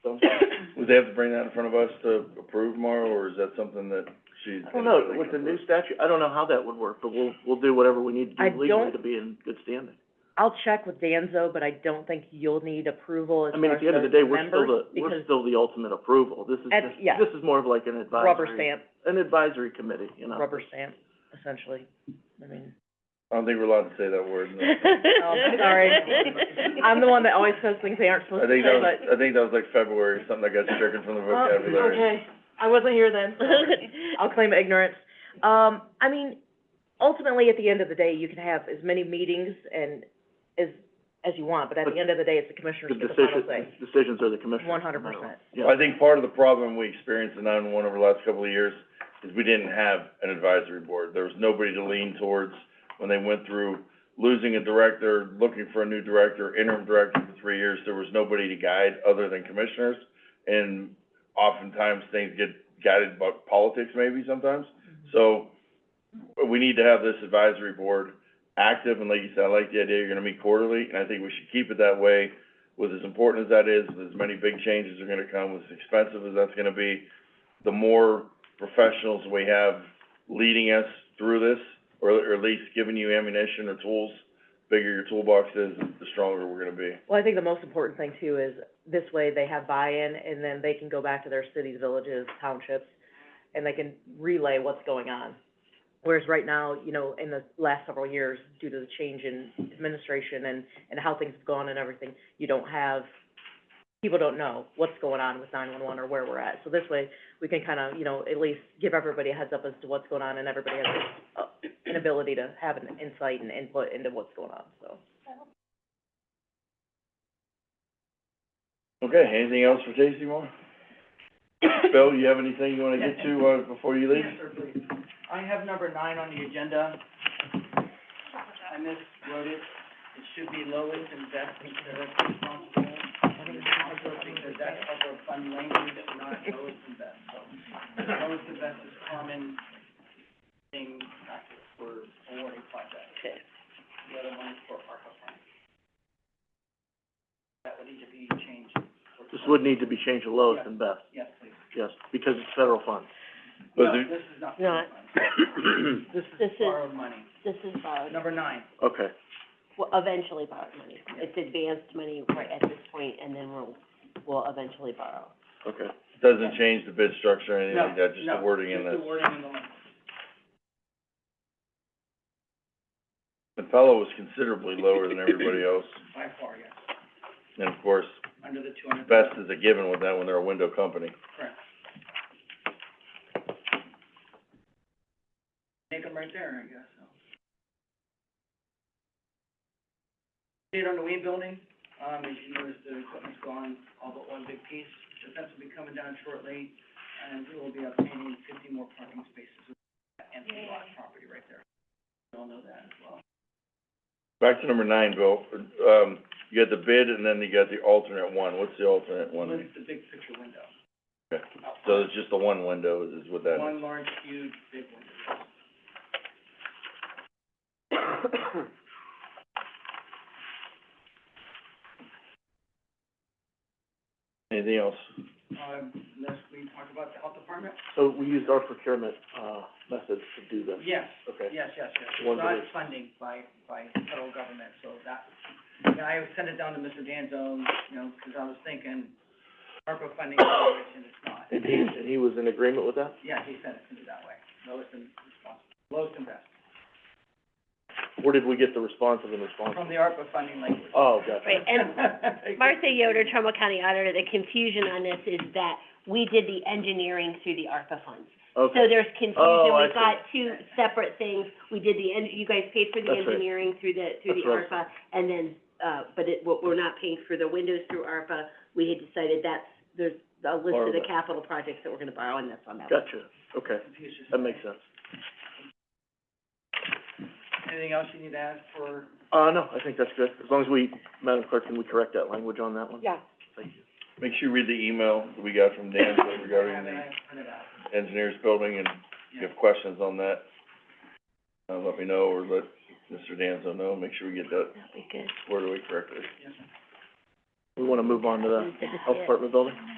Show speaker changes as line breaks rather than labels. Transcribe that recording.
Would they have to bring that in front of us to approve tomorrow, or is that something that she's?
I don't know, with the new statute, I don't know how that would work, but we'll, we'll do whatever we need to
I
do legally
don't-
to be in good standing.
I'll check with Danzo, but I don't think you'll need approval as
I mean, at the end of the day, we're still the, we're still the ultimate approval. This is
At-
just,
yeah.
this is more of like an
Because rubber
advisory,
stamp,
an advisory committee, you know?
rubber stamp, essentially, I mean.
I don't think we're allowed to say that word, no.
Oh, I'm sorry. I'm the one that always says things they
I
aren't supposed to
think
say,
that was, I
but.
think that was like February, something that got stricken from the vocabulary.
Okay, I wasn't here then. I'll claim ignorance. Um, I mean, ultimately, at the end of the day, you can have as many meetings and as, as you want, but at the end of the day, it's the commissioners
The
with the final
decisions,
say.
decisions are the commissioners.
100%.
Yeah.
I think part of the problem we experienced in nine-one over the last couple of years is we didn't have an advisory board. There was nobody to lean towards when they went through losing a director, looking for a new director, interim director for three years. There was nobody to guide other than commissioners. And oftentimes, things get guided by politics maybe sometimes. So we need to have this advisory board active, and like you said, I like the idea you're gonna meet quarterly, and I think we should keep it that way. With as important as that is, with as many big changes are gonna come, with as expensive as that's gonna be, the more professionals we have leading us through this, or, or at least giving you ammunition or tools, bigger your toolbox is, the stronger we're gonna be.
Well, I think the most important thing too is this way they have buy-in and then they can go back to their cities, villages, townships, and they can relay what's going on. Whereas right now, you know, in the last several years, due to the change in administration and, and how things have gone and everything, you don't have, people don't know what's going on with nine-one-one or where we're at. So this way, we can kind of, you know, at least give everybody a heads up as to what's going on and everybody has uh, an ability to have an insight and input into what's going on, so.
Okay, anything else for Casey Moore? Bill, you have anything you wanna get to, uh, before you leave?
Answer, please. I have number nine on the agenda. I miswrote it. It should be lowest and best considered responsible. Also, because that's how we're fund language, not lowest and best, so. Lowest and best is common thing practice for awarding projects. The other one is for ARPA funds. That would need to be changed. for-
This would need to be changed to lowest and best,
Yes, please.
yes, because it's federal funds.
Was
No,
there-
this is not.
No,
This
This
is
is-
borrowed money.
This is borrowed,
Number nine.
Okay,
well, eventually borrowed money. It's advanced money right at this point, and then we'll, we'll eventually borrow.
okay.
Doesn't change the bid structure or anything like that, just
No,
the wording
no,
in this.
just the wording in the language.
The fellow was considerably lower than everybody else,
by far, yes,
and of course,
under the two hundred.
best is a given with that when they're a window company.
Correct. Make them right there, I guess, so. See it on the Ween building, um, as you notice, the equipment's gone, all but one big piece, the fence will be coming down shortly, and we will be obtaining fifty more parking spaces with that empty lot property right there. You all know that as well.
Back to number nine, Bill, um, you got the bid and then you got the alternate one, what's the alternate one?
It's the big picture window.
Okay.
Out
So
front.
it's just the one window is what that is.
One large, huge, big one.
Anything else?
Um, unless we talk about the health department?
So we used our procurement, uh, method to do this,
Yes,
okay?
yes, yes, yes.
One
Not
belief.
funding by, by federal government, so that, yeah, I sent it down to Mr. Danzo, you know, because I was thinking ARPA funding, which, and it's not.
And he, and he was in agreement with that?
Yeah, he sent it to me that way, lowest and responsible, lowest and best,
Where did we get the responsive and responsible?
from the ARPA funding language.
Oh, gotcha.
Right, and Martha Yoder, Trumbull County Auditor, the confusion on this is that we did the engineering through the ARPA funds.
Okay.
So there's confusion,
Oh,
we
I
got two separate things, we did the en- you guys paid for the
That's right.
engineering through the, through the
That's
ARPA, and then, uh, but it, what we're not paying for the windows through ARPA, we had decided that's, there's a list
Borrow
of the
that.
capital projects that we're gonna borrow, and that's on that.
Gotcha, okay,
Confucius.
that makes sense.
Anything else you need to add for,
Uh, no, I think that's good, as long as we, Madam Clerk, can we correct that language on that one?
Yeah.
Thank you.
Make sure you read the email that we got from Dan regarding
I
the
have it printed out.
engineers building, and if you have questions on that, uh, let me know, or let Mr. Danzo know, make sure we get that
That'd be good.
squared away correctly.
Yes, sir.
We wanna move on to the Health Department building?